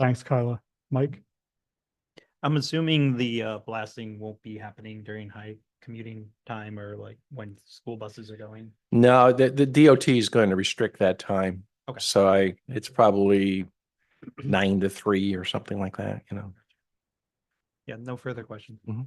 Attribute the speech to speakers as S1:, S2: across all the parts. S1: Thanks, Kyla. Mike?
S2: I'm assuming the uh blasting won't be happening during high commuting time or like when school buses are going.
S3: No, the, the DOT is going to restrict that time.
S2: Okay.
S3: So I, it's probably nine to three or something like that, you know.
S2: Yeah, no further questions.
S4: All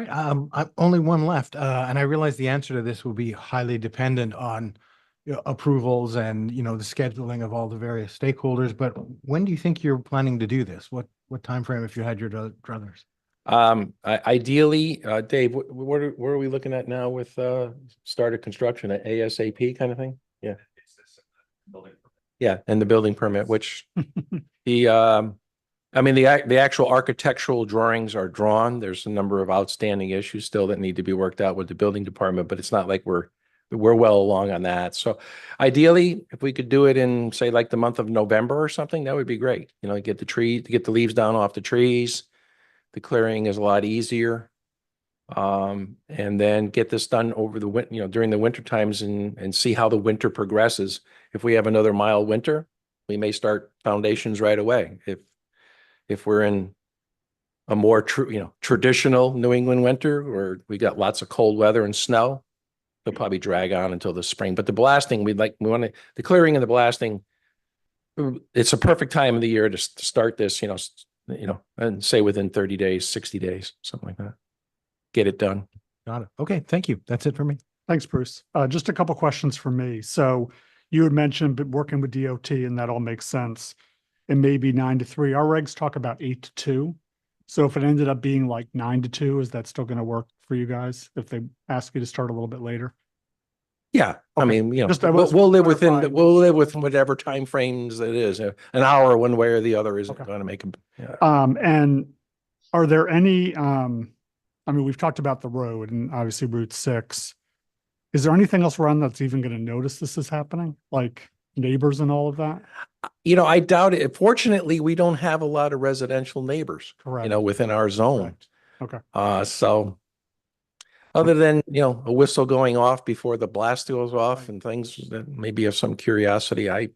S4: right, um, I, only one left, uh, and I realize the answer to this will be highly dependent on you know, approvals and, you know, the scheduling of all the various stakeholders, but when do you think you're planning to do this? What, what frame? if you had your dru- druthers?
S3: Um, I, ideally, uh, Dave, wh- wh- what, are- what are we looking at now with, uh, start of construction, a ASAP kind of thing? Yeah. Yeah, and the building permit, which the, um, I mean, the, ac- the actual architectural drawings are drawn. There's a number of outstanding issues still that need to be worked out with the building department, but it's not like we're, we're well along on that. So ideally, if we could do it in, say, like the month of November or something, that would be great. You know, get the tree, get the leaves down off the trees. The clearing is a lot easier. Um, and then get this done over the win, you know, during the winter times and, and see how the winter progresses. If we have another mild winter, we may start foundations right away. If, if we're in a more true, you know, traditional New England winter where we got lots of cold weather and snow, they'll probably drag on until the spring. But the blasting, we'd like, we want to, the clearing and the blasting, it's a perfect time of the year to s- to start this, you know, s- you know, and say within thirty days, sixty days, something like that. Get it done.
S4: Got it. Okay, thank you. That's it for me.
S1: Thanks, Bruce. Uh, just a couple questions for me. So you had mentioned but working with DOT and that all makes sense. It may be nine to three. Our regs talk about eight to two. So if it ended up being like nine to two, is that still going to work for you guys if they ask you to start a little bit later?
S3: Yeah, I
S1: Okay.
S3: mean, you know,
S1: Just I
S3: we'll,
S1: was
S3: we'll live within, the-
S1: clarifying.
S3: we'll live with whatever timeframes it is. Uh, An hour, one way or the other isn't
S1: Okay.
S3: going to make a.
S1: Um, and are there any, um, I mean, we've talked about the road and obviously Route six. Is there anything else around that's even going to notice this is happening? Like neighbors and all of that?
S3: uh, You know, I doubt it. Fortunately, we don't have a lot of residential neighbors,
S1: Correct.
S3: you know, within our zone.
S1: Correct. Okay.
S3: Uh, so other than, you know, a whistle going off before the blast goes off and things that maybe of some curiosity, I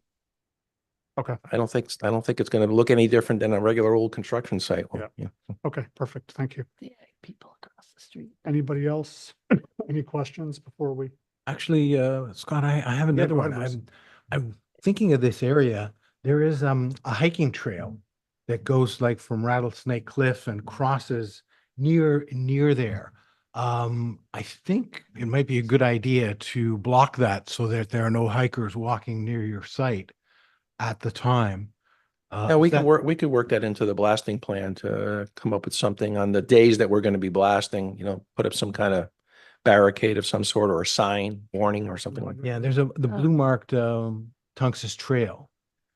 S1: Okay.
S3: I don't think, I don't think it's going to look any different than a regular old construction site. will,
S1: Yeah.
S3: you know.
S1: Okay, perfect. Thank you.
S5: Yeah, people across the street.
S1: Anybody else? Any questions before we?
S4: Actually, uh, Scott, I, I have another
S1: go ahead,
S4: one.
S1: Bruce.
S4: I'm, I'm thinking of this area. There is, um, a hiking trail that goes like from Rattlesnake Cliff and crosses near, near there. Um, I think it might be a good idea to block that so that there are no hikers walking near your site at the time. Uh,
S3: Yeah,
S4: is
S3: we can
S4: that-
S3: work, we could work that into the blasting plan to come up with something on the days that we're going to be blasting, you know, put up some kind of barricade of some sort or a sign warning or something
S1: Mm-hmm.
S3: like that.
S4: Yeah, there's a, the
S6: Oh.
S5: Uh,
S4: blue marked, um, Tungus Trail.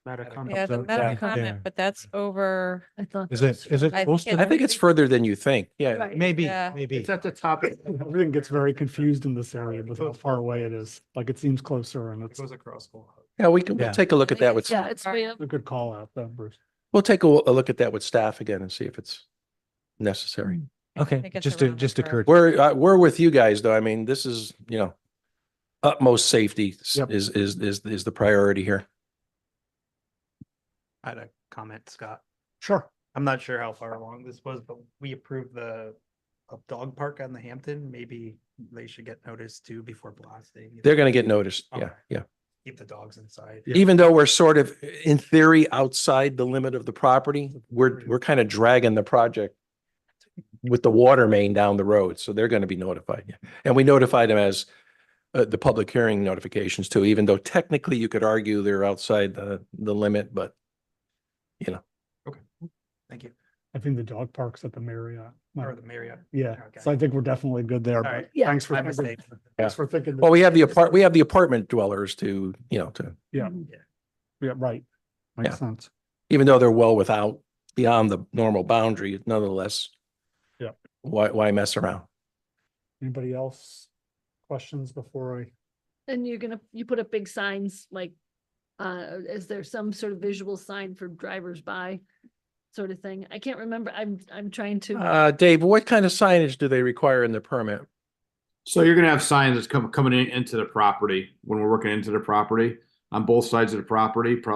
S6: Yeah, the
S4: So
S6: meta
S4: that- there.
S6: comment, but that's over,
S5: I thought.
S4: Is
S5: that
S4: it,
S5: was-
S4: is it
S6: I think
S4: close to
S6: it's-
S3: I
S4: that?
S3: think it's further than you think. Yeah.
S5: Right.
S4: Maybe,
S6: Yeah.
S4: maybe.
S1: It's at the top. Everything gets very confused in this area with how far away it is. Like it seems closer and it's a
S3: Yeah, we can,
S4: Yeah.
S3: we'll take a look at that with,
S5: Yeah, it's way up.
S1: good call out though, Bruce.
S3: we'll take a, a look at that with staff again and see if it's necessary.
S4: Okay,
S6: think it's
S4: just, a-
S6: around the
S4: just
S6: curve.
S4: occurred.
S3: We're, uh, we're with you guys though. I mean, this is, you know, utmost safety s-
S1: Yep.
S3: is, is, is, is the priority here.
S2: I had a comment, Scott.
S1: Sure.
S2: I'm not sure how far along this was, but we approved the a dog park on the Hampton. Maybe they should get notice too before blasting.
S3: They're going to get noticed. Yeah,
S2: Okay.
S3: yeah.
S2: Keep the dogs inside.
S3: even though we're sort of in theory outside the limit of the property, we're, we're kind of dragging the project with the water main down the road. So they're going to be notified. yeah. And we notified them as uh, the public hearing notifications too, even though technically you could argue they're outside the, the limit, but
S2: Thank you.
S1: I think the dog park's at the Marriott.
S2: Or the Marriott.
S1: Yeah.
S2: Okay.
S1: So I think we're definitely good there.
S2: All
S1: but
S2: right.
S5: Yeah.
S1: Thanks for.
S2: My
S1: thinking-
S2: mistake. Oh.
S1: Thanks for thinking.
S3: well, we have the apart, we have the apartment dwellers to, you know, to,
S1: Yeah. Yeah, right.
S3: Yeah.
S1: Makes sense.
S3: even though they're well without, beyond the normal boundary, nonetheless.
S1: Yeah.
S3: Why, why mess around?
S1: Anybody else? Questions before I?
S5: And you're gonna, you put up big signs, like, uh, is there some sort of visual sign for drivers by? Sort of thing. I can't remember. I'm, I'm trying to,
S3: Uh, Dave, what kind of signage do they require in the permit?
S7: So you're gonna have signs that's come, coming in, into the property, when we're working into the property, on both sides of the property, probably